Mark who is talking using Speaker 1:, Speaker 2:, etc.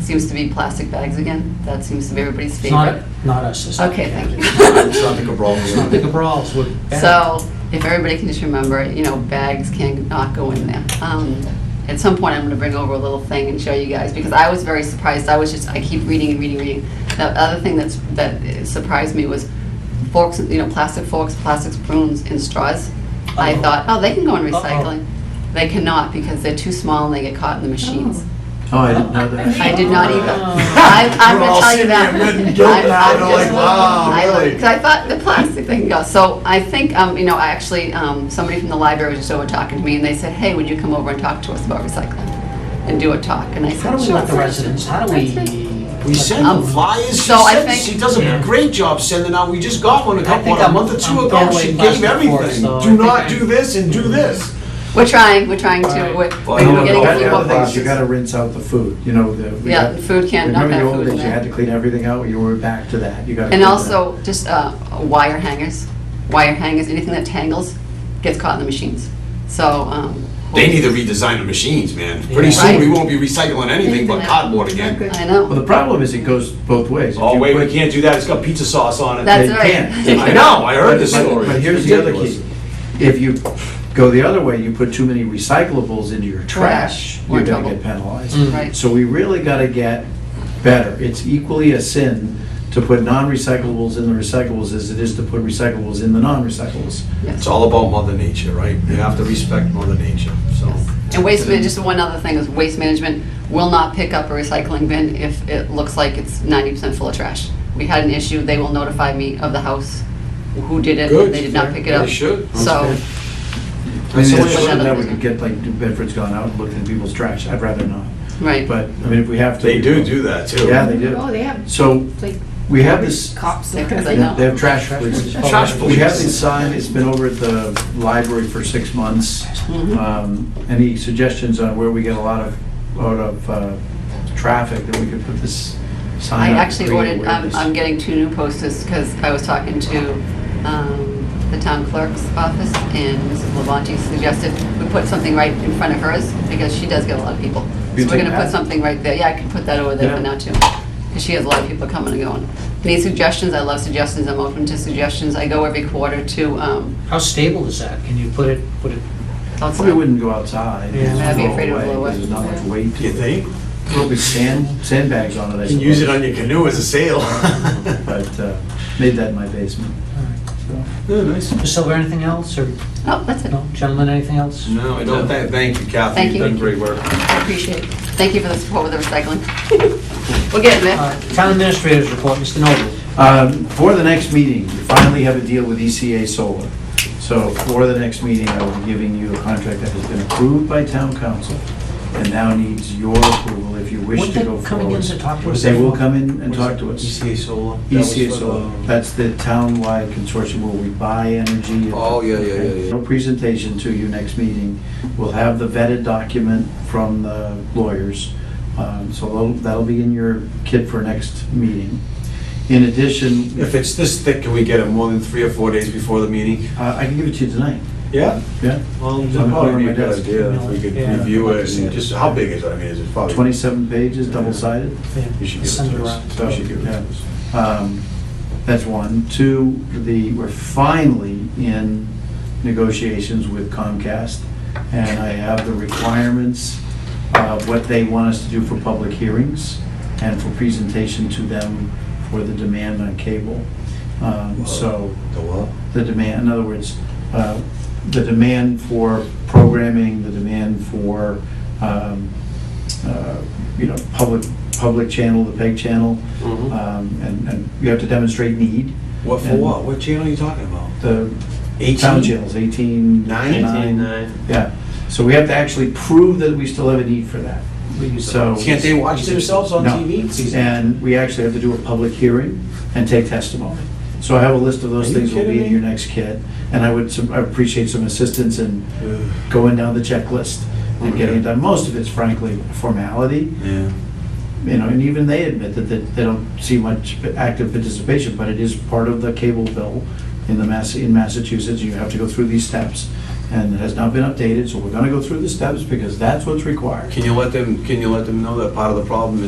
Speaker 1: seems to be plastic bags again. That seems to be everybody's
Speaker 2: It's not,
Speaker 1: favorite.
Speaker 2: not us. it's not-
Speaker 1: Okay, thank you.
Speaker 3: It's not the Cabral.
Speaker 2: It's not the Cabrals, we're bad.
Speaker 1: So if everybody can just remember, you know, bags can not go in there. Um, At some point, I'm going to bring over a little thing and show you guys, because I was very surprised. I was just, I keep reading and reading, reading. The other thing that's, that surprised me was forks, you know, plastic forks, plastic spoons, and straws. I
Speaker 2: Uh-oh.
Speaker 1: thought, oh, they can go in
Speaker 2: Uh-oh.
Speaker 1: recycling. They cannot, because they're too small and they get caught in the machines.
Speaker 3: Oh, I didn't know that.
Speaker 1: I did not either.
Speaker 2: Oh.
Speaker 1: I- I'm
Speaker 3: We're
Speaker 1: going
Speaker 3: all
Speaker 1: to tell you
Speaker 3: sitting
Speaker 1: that.
Speaker 3: here written guilt
Speaker 1: I'm-
Speaker 3: now,
Speaker 1: I'm
Speaker 3: and I'm
Speaker 1: just-
Speaker 3: like, wow,
Speaker 1: I looked,
Speaker 3: really?
Speaker 1: 'cause I thought the plastic thing goes. So I think, um, you know, I actually, um, somebody from the library was just over talking to me, and they said, hey, would you come over and talk to us about recycling? And do a talk, and I said, sure.
Speaker 2: How do we let the residents, how do we?
Speaker 1: That's right.
Speaker 4: We send them
Speaker 1: Um,
Speaker 4: flyers, she
Speaker 1: so I
Speaker 4: sends,
Speaker 1: think-
Speaker 4: she does
Speaker 2: Yeah.
Speaker 4: a great job sending out, we just got one a
Speaker 2: I
Speaker 4: couple,
Speaker 2: think
Speaker 4: a
Speaker 2: I'm-
Speaker 4: month or two
Speaker 2: I'm
Speaker 4: ago,
Speaker 2: totally
Speaker 4: she
Speaker 2: plastic
Speaker 4: gave
Speaker 2: for it,
Speaker 4: everything.
Speaker 2: so I
Speaker 4: Do
Speaker 2: think
Speaker 4: not
Speaker 2: I-
Speaker 4: do this and do this.
Speaker 1: We're trying, we're trying to,
Speaker 2: Alright.
Speaker 1: we're
Speaker 3: Well, you
Speaker 1: we're
Speaker 3: know,
Speaker 1: getting a
Speaker 3: the
Speaker 1: few
Speaker 3: the
Speaker 1: more
Speaker 3: other thing is you
Speaker 1: boxes.
Speaker 3: gotta rinse out the food, you know, the. we
Speaker 1: Yeah,
Speaker 3: got-
Speaker 1: food can, not that
Speaker 3: Remember
Speaker 1: food
Speaker 3: the old
Speaker 1: in
Speaker 3: days, you had
Speaker 1: there.
Speaker 3: to clean everything out, you were back to that, you gotta.
Speaker 1: And
Speaker 3: do that.
Speaker 1: also, just uh, wire hangers, wire hangers, anything that tangles gets caught in the machines, so. um,
Speaker 4: They need to redesign the machines, man. Pretty
Speaker 2: Yeah.
Speaker 4: soon, we
Speaker 1: Right.
Speaker 4: won't be recycling anything but cardboard again.
Speaker 1: I know.
Speaker 3: Well, the problem is it goes both ways. If
Speaker 4: Oh,
Speaker 3: you
Speaker 4: wait,
Speaker 3: put-
Speaker 4: we can't do that, it's got pizza sauce on it.
Speaker 1: That's
Speaker 3: They
Speaker 1: right.
Speaker 3: can't.
Speaker 4: I know, I heard this
Speaker 3: But-
Speaker 4: story.
Speaker 3: But here's
Speaker 4: It's
Speaker 3: the other
Speaker 4: ridiculous.
Speaker 3: key. If you go the other way, you put too many recyclables into your trash,
Speaker 1: We're
Speaker 3: you're
Speaker 1: in
Speaker 3: gonna
Speaker 1: trouble.
Speaker 3: get penalized.
Speaker 2: Mm.
Speaker 1: Right.
Speaker 3: So we really gotta get better. It's equally a sin to put non-recyclables in the recyclables as it is to put recyclables in the non-recyclables.
Speaker 1: Yes.
Speaker 4: It's all about mother nature, right? You have to respect mother nature, so.
Speaker 1: Yes. And waste, man- just one other thing is waste management will not pick up a recycling bin if it looks like it's ninety percent full of trash. We had an issue, they will notify me of the house, who did it,
Speaker 4: Good.
Speaker 1: they did not pick it
Speaker 4: They
Speaker 1: up.
Speaker 4: should.
Speaker 1: So,
Speaker 3: I mean,
Speaker 4: So
Speaker 3: it's
Speaker 4: what-
Speaker 3: something that we could get, like, New Bedford's gone out and looked in people's trash, I'd rather not.
Speaker 1: right,
Speaker 3: But, I mean, if we have to.
Speaker 4: They do do that too.
Speaker 3: Yeah, they
Speaker 5: Oh,
Speaker 3: do.
Speaker 5: they have
Speaker 3: So
Speaker 5: like
Speaker 3: we have this,
Speaker 5: cops.
Speaker 1: Yeah, 'cause
Speaker 3: they
Speaker 1: I know.
Speaker 3: have trash police.
Speaker 4: Trash
Speaker 3: We have
Speaker 4: police.
Speaker 3: this sign, it's been over at the library for six months.
Speaker 1: Mhm.
Speaker 3: Um, Any suggestions on where we get a lot of, out of uh, traffic that we could put this
Speaker 1: I
Speaker 3: sign up?
Speaker 1: actually
Speaker 3: create
Speaker 1: ordered, um, I'm,
Speaker 3: awareness?
Speaker 1: I'm getting two new posters, because I was talking to, um, the town clerk's office, and Mrs. Levanti suggested we put something right in front of hers, because she does get a lot of people. So
Speaker 3: You
Speaker 1: we're
Speaker 3: take
Speaker 1: gonna put
Speaker 3: that?
Speaker 1: something right there, yeah, I can put that over there for
Speaker 3: Yeah.
Speaker 1: now too, because she has a lot of people coming and going. Any suggestions, I love suggestions, I'm open to suggestions, I go every quarter to, um,
Speaker 2: How stable is that? Can you put it, put it,
Speaker 1: outside.
Speaker 3: Probably wouldn't go outside.
Speaker 2: Yeah.
Speaker 3: It's
Speaker 2: I'd be
Speaker 3: all
Speaker 1: afraid it would
Speaker 3: away,
Speaker 1: blow
Speaker 3: because
Speaker 1: up.
Speaker 3: There's not much weight to
Speaker 4: You
Speaker 3: it.
Speaker 4: think?
Speaker 3: Probably sand, sandbags on it, I
Speaker 4: You
Speaker 3: suppose.
Speaker 4: can use it on your canoe as a sail.
Speaker 3: But uh, made that in my basement. so.
Speaker 4: Yeah, nice.
Speaker 2: Mr. Silver, anything else, or,
Speaker 1: Oh, that's it,
Speaker 2: no, gentlemen, anything else?
Speaker 4: No, I don't, thank, thank you, Kathy,
Speaker 1: Thank
Speaker 4: you've
Speaker 1: you.
Speaker 4: done great work.
Speaker 1: I appreciate it, thank you for the support with the recycling. We're getting there.
Speaker 2: Uh, Town administrators report, Mr. Noble.
Speaker 3: Um, For the next meeting, we finally have a deal with ECA Solar. So for the next meeting, I will be giving you a contract that has been approved by town council and now needs your approval if you wish
Speaker 2: Weren't
Speaker 3: to
Speaker 2: they
Speaker 3: go forward.
Speaker 2: coming in to talk to us
Speaker 3: They will
Speaker 2: before?
Speaker 3: come in and talk to
Speaker 2: E
Speaker 3: us.
Speaker 4: ECA E Solar. That was
Speaker 3: ECA
Speaker 4: for the-
Speaker 3: Solar, that's the townwide consortium where we buy energy.
Speaker 4: Oh, yeah, yeah, yeah, yeah.
Speaker 3: No presentation to you next meeting. We'll have the vetted document from the lawyers. Um, So that'll- that'll be in your kit for next meeting. In addition,
Speaker 4: If it's this thick, can we get it more than three or four days before the meeting?
Speaker 3: uh, I can give it to you tonight.
Speaker 4: Yeah.
Speaker 3: Yeah,
Speaker 4: Well,
Speaker 3: I'm
Speaker 4: that'd probably be
Speaker 3: over my
Speaker 4: a good
Speaker 3: desk.
Speaker 4: idea if we could
Speaker 2: Yeah.
Speaker 4: review
Speaker 2: Yeah.
Speaker 4: it and just, how big is it? I mean, is it probably?
Speaker 3: 27 pages, double-sided.
Speaker 4: You should give it
Speaker 2: Send
Speaker 4: to
Speaker 2: around.
Speaker 4: us. You should give it to
Speaker 3: Yeah.
Speaker 4: us.
Speaker 3: Um, That's one. Two, the, we're finally in negotiations with Comcast, and I have the requirements of what they want us to do for public hearings and for presentation to them for the demand on cable. Um, So
Speaker 4: The what?
Speaker 3: the demand, in other words, uh, the demand for programming, the demand for, um, uh, you know, public, public channel, the PEG channel,
Speaker 4: Mhm.
Speaker 3: um, and, and you have to demonstrate need.
Speaker 4: What for
Speaker 3: And
Speaker 4: what? What channel are you talking about?
Speaker 3: The
Speaker 4: Eighteen?
Speaker 3: town channels, 18,
Speaker 4: Nine?
Speaker 3: 9. Yeah, so we have to actually prove that we still have a need for that.
Speaker 2: We use the-
Speaker 3: So.
Speaker 4: Can't they watch themselves on
Speaker 3: No.
Speaker 4: TV?
Speaker 3: And we actually have to do a public hearing and take testimony. So I have a list of
Speaker 4: Are
Speaker 3: those
Speaker 4: you
Speaker 3: things will be
Speaker 4: kidding
Speaker 3: in
Speaker 4: me?
Speaker 3: your next kit. And I would, some- I appreciate some assistance in
Speaker 4: Ugh.
Speaker 3: going down the checklist and getting it done. Most of it's frankly formality,
Speaker 4: Yeah.
Speaker 3: you know, and even they admit that they they don't see much active participation, but it is part of the cable bill in the Mass, in Massachusetts, you have to go through these steps. And it has not been updated, so we're gonna go through the steps because that's what's required.
Speaker 4: Can you let them, can you let them know that part of the problem